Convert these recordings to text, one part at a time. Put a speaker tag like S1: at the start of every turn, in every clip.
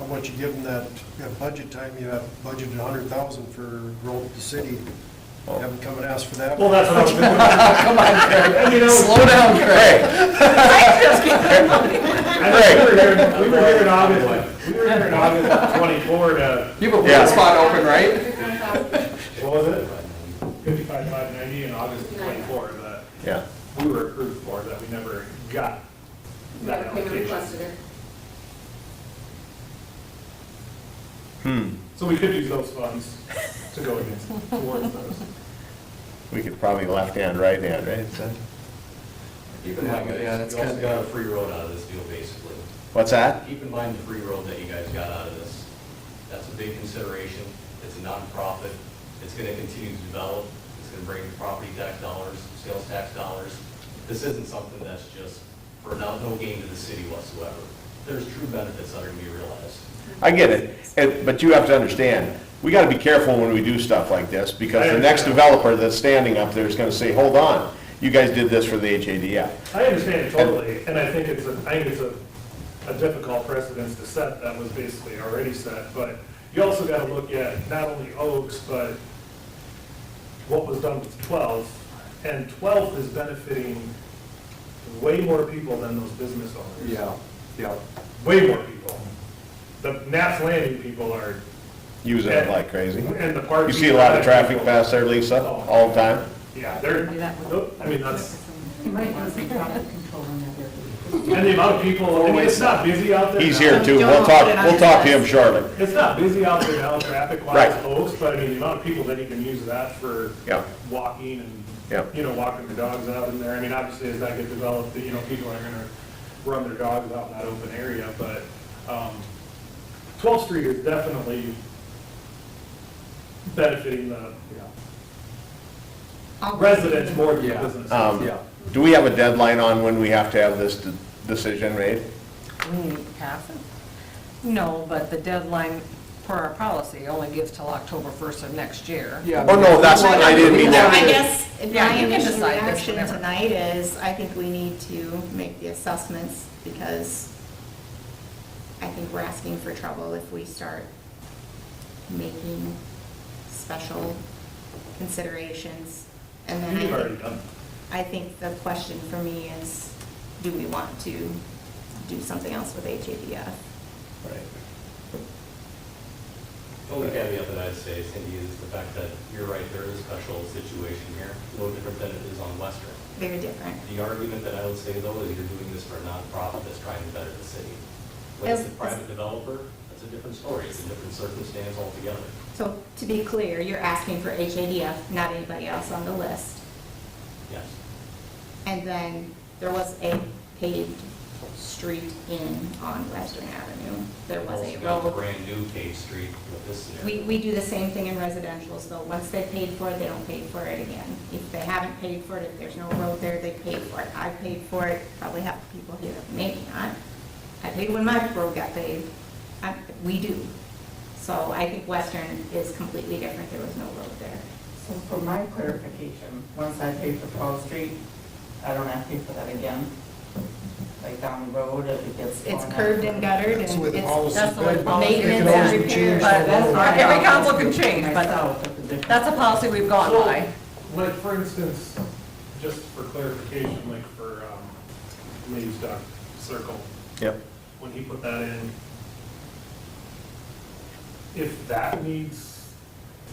S1: once you give them that, that budget time, you have budgeted a hundred thousand for growth of the city. You Haven't come and asked for that.
S2: Well, that's what I was gonna, come on, Craig, I mean, I was,
S3: Slow down, Craig.
S2: I think we were here, we were here in August, we were here in August twenty-four to,
S3: You have a
S4: Yeah.
S3: weird spot open, right?
S2: what was it? Fifty-five, five ninety in August twenty-four, that
S4: Yeah.
S2: we were approved for, that we never got that allocation.
S4: Hmm,
S2: So we could use those funds to go against, towards those.
S4: we could probably left hand, right hand, right?
S5: Keep in mind,
S3: Yeah,
S5: guys,
S3: that's
S5: you also
S3: kinda-
S5: got a free road out of this deal, basically.
S4: What's that?
S5: Keep in mind the free road that you guys got out of this. That's a big consideration. It's a nonprofit. It's going to continue to develop. It's going to bring property tax dollars, sales tax dollars. This isn't something that's just for no, no gain to the city whatsoever. There's true benefits that are going to be realized.
S4: I get it, and- but you have to understand, we gotta be careful when we do stuff like this, because the next developer that's standing up there is gonna say, hold on, you guys did this for the HADF.
S2: I understand it totally, and I think it's, a I think it's a, a difficult precedence to set that was basically already set, but you also gotta look at not only Oaks, but what was done with 12, and 12 is benefiting way more people than those business owners.
S3: Yeah, yeah.
S2: Way more people. The Naps Landing people are,
S4: Using it like crazy.
S2: and the park.
S4: You see a lot of traffic
S2: people-
S4: pass there, Lisa, all the time?
S2: Yeah, they're, I mean, that's.
S6: Right, I was controlling that.
S2: And the amount of people, I mean, it's not busy out there.
S4: He's
S2: now.
S4: here too, we'll talk, we'll talk to him shortly.
S2: It's not busy out there now, traffic wise,
S4: Right.
S2: folks, but I mean, the amount of people that even use that for
S4: Yeah.
S2: walking
S4: Yeah.
S2: and, you know, walking their dogs out in there. I mean, obviously, as that gets developed, you know, people are gonna run their dogs out in that open area, but, um, 12th Street is definitely benefiting the residents more than the
S3: Yeah.
S2: businesses.
S4: Um,
S3: Yeah.
S4: Do we have a deadline on when we have to have this de- decision made?
S6: We need to pass it? No, but the deadline for our policy only gives till October 1st of next year.
S3: Yeah.
S4: Oh, no, that's, I didn't mean
S7: So
S4: that.
S7: I guess
S6: Yeah,
S7: my
S6: you can
S7: initial
S6: decide this
S7: reaction
S6: whenever.
S7: tonight is, I think we need to make the assessments because I think we're asking for trouble if we start making special considerations. And then
S2: You've
S7: I
S2: already
S7: think,
S2: done.
S7: I think the question for me is, do we want to do something else with HADF?
S5: The only caveat that I'd say, Cindy, is the fact that you're right, there is a special situation here, no different than it is on Western.
S7: Very different.
S5: The argument that I would say though is you're doing this for a nonprofit that's trying to better the city. When it's a
S7: Yes.
S5: private developer, that's a different story, it's a different circumstance altogether.
S7: So to be clear, you're asking for HADF, not anybody else on the list.
S5: Yes.
S7: And then there was a paved street in on Western Avenue. There was a
S5: Also got the
S7: road.
S5: brand new paved street with this
S7: We,
S5: scenario.
S7: we do the same thing in residential, so once they paid for it, they don't pay for it again. If they haven't paid for it, if there's no road there, they pay for it. I paid for it, probably half the people here, maybe not. I paid when my road got paved. I- We do. So I think Western is completely different. There was no road there.
S8: So for my clarification, once I pay for 12th Street, I don't have to pay for that again? Like down the road, if it gets.
S7: It's
S8: torn up.
S7: curved and guttered and
S1: That's the way the
S7: it's,
S1: policy's
S6: that's the way the
S1: been.
S6: policy
S1: It can
S7: Maintenance and
S1: always be changed.
S6: repair,
S8: But that's
S6: Our-
S8: my-
S6: every council can change, but
S8: Myself, that's a different-
S6: That's a policy we've gone
S2: So,
S6: by.
S2: Like, for instance, just for clarification, like for, um, Lee's Duck Circle,
S4: Yep.
S2: when he put that in, if that needs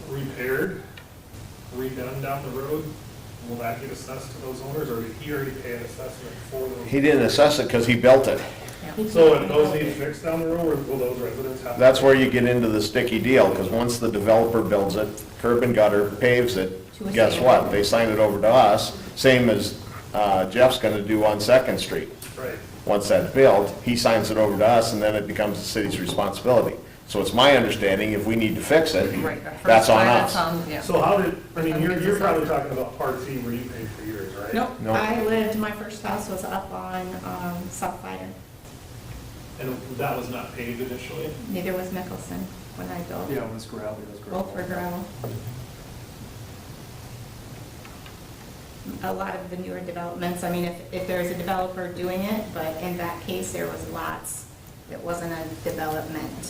S2: repaired, redone down the road, will that get assessed to those owners, or did he already pay an assessment for
S4: He
S2: them?
S4: didn't assess it because he built it.
S2: So if those need fixed down the road, or will those residents have?
S4: That's where you get into the sticky deal, because once the developer builds it, curb and gutter paves it,
S7: To a
S4: guess
S7: sale.
S4: what? They sign it over to us, same as uh, Jeff's gonna do on Second Street.
S2: Right.
S4: Once that's built, he signs it over to us, and then it becomes the city's responsibility. So it's my understanding, if we need to fix it,
S6: Right, the first
S4: that's on
S6: time,
S4: us.
S6: on- yeah.
S2: So how did, I mean, you're, you're
S6: Assessment.
S2: probably talking about Part C where you paid for yours, right?
S6: Nope.
S4: No.
S7: I lived, my first house was up on um, South Fire.
S2: And that was not paved initially?
S7: Neither was Mickelson when I
S3: Yeah,
S7: built.
S3: it was gravel, it was gravel.
S7: Both were gravel. A lot of the newer developments, I mean, if, if there's a developer doing it, but in that case, there was lots. It wasn't a development